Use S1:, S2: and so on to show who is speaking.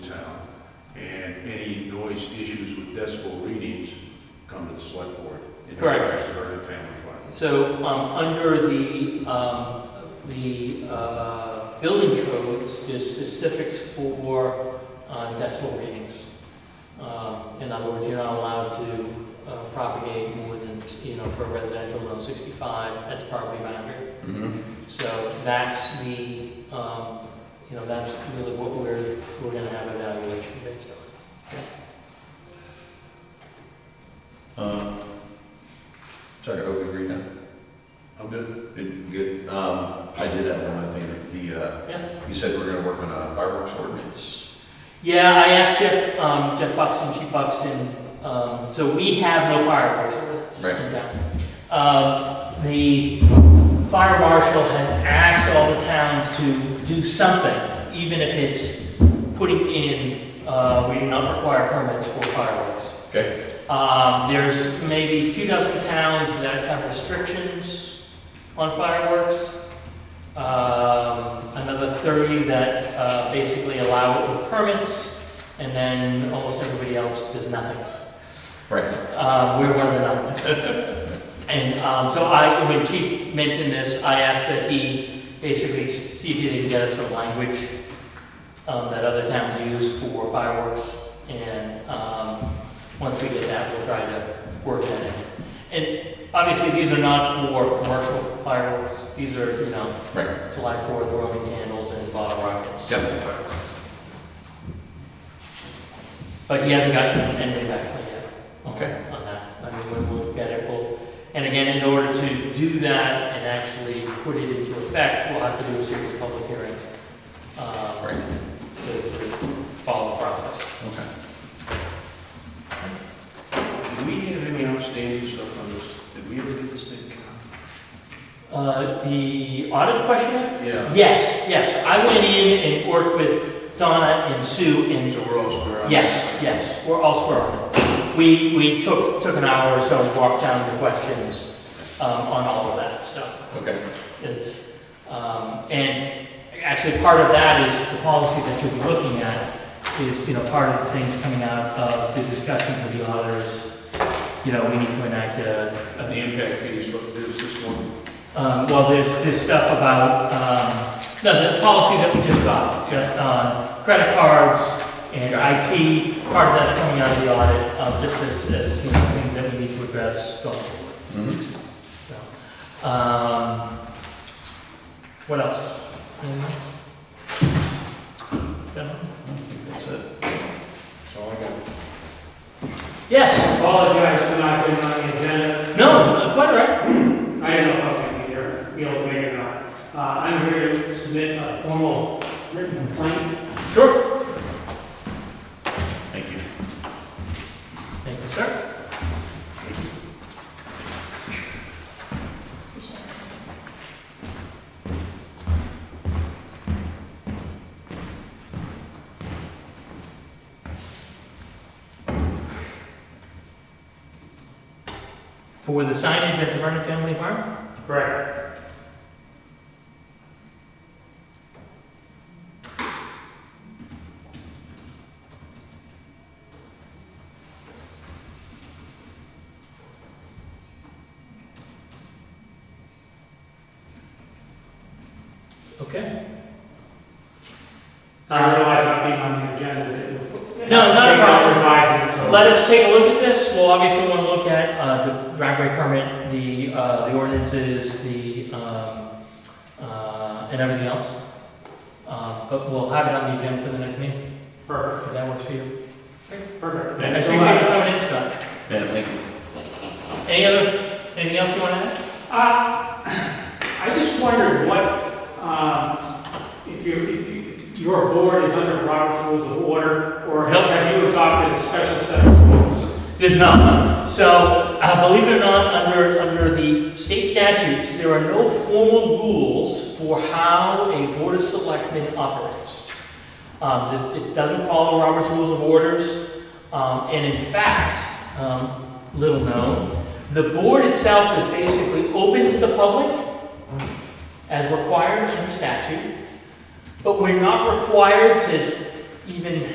S1: any noise issues with decibel readings come to the select board. in
S2: Correct.
S1: regards to our family plan.
S2: So, um, under the, um, the, uh, building codes, there's specifics for, uh, decimal readings. Um, in other words, you're not allowed to uh, propagate more than, you know, for a residential zone sixty-five at the property boundary.
S1: Mm-hmm.
S2: So that's the, um, you know, that's really what we're, we're gonna have evaluation based on.
S3: Um, Sorry, are we agree now?
S1: I'm good.
S3: Good, Good. Um, I did have one other thing, the, uh,
S2: Yeah.
S3: you said we're gonna work on a fireworks ordinance.
S2: Yeah, I asked Jeff, um, Jeff Buxton, Chief Buxton, um, so we have no fireworks
S3: Right.
S2: in town. Um, the fire marshal has asked all the towns to do something, even if it's putting in, uh, we do not require permits for fireworks.
S3: Okay,
S2: Um, there's maybe two dozen towns that have restrictions on fireworks. Um, another thirty that, uh, basically allow it with permits, and then almost everybody else does nothing.
S3: right,
S2: Uh, we're one of the numbers. And, um, so I, when Chief mentioned this, I asked that he basically s- see if he could get us some language, um, that other towns use for fireworks, and, um, once we get that, we'll try to work that in. And obviously, these are not for commercial fireworks, these are, you know,
S3: right.
S2: July Fourth, Roman candles and bottle rockets.
S3: Yep.
S2: But he hasn't gotten anything back to me yet. on-
S3: Okay.
S2: On that, I mean, when we'll get it, we'll, and again, in order to do that and actually put it into effect, we'll have to do a series of public hearings. um,
S3: Right.
S2: To, to follow the process.
S3: Okay.
S1: Do we have any outstanding stuff on this? Did we ever get this thing?
S2: Uh, the audit question?
S1: Yeah.
S2: Yes, yes, I went in and worked with Donna and Sue and
S1: So we're all square on this?
S2: Yes, yes, we're all square on it. We, we took, took an hour or so and walked down the questions um, on all of that, so
S3: Okay,
S2: it's, um, and actually, part of that is the policy that you'll be looking at is, you know, part of the things coming out of the discussion with the auditors. You know, we need to enact a,
S1: And the impact fees, look, there's this one.
S2: um, well, there's this stuff about, um, no, the policy that we just got, yeah, on credit cards and IT, part of that's coming out of the audit, um, just as, as, you know, things that we need to address going forward,
S3: mhm.
S2: so. Um, what else? Anything else? Gentlemen?
S3: that's it.
S1: That's all I got.
S2: Yes,
S4: Apologize for not being on the agenda.
S2: no, uh, quite all right.
S4: I didn't know if I was going to be here, be able to make it or not. Uh, I'm here to submit a formal written complaint.
S2: Sure.
S3: Thank you.
S2: Thank you, sir. For the signage at the Vernon Family Farm?
S4: Correct.
S2: Okay.
S4: I realize not being on the agenda.
S2: Uh, No, not a problem.
S4: Advising, so.
S2: Let us take a look at this. We'll obviously want to look at uh, the driveway permit, the, uh, the ordinances, the, um, uh, and everything else. Uh, But we'll have it on the agenda for the next meeting,
S4: Perfect,
S2: if that works for you.
S4: perfect.
S3: Yeah,
S2: I
S4: Thanks so
S2: appreciate you
S4: much.
S2: coming in, Scott.
S3: Yeah, thank you.
S2: Any other, anything else you want to add?
S4: Uh, I just wondered what, um, if you, if you- your board is under Robert's Rules of Order, or
S2: Nope.
S4: have you adopted a special set of rules?
S2: There's none. So, uh, believe it or not, under, under the state statutes, there are no formal rules for how a board of selectmen operates. Um, this, it doesn't follow Robert's Rules of Orders, um, and in fact, um, little known, the board itself is basically open to the public, as required under statute, but we're not required to even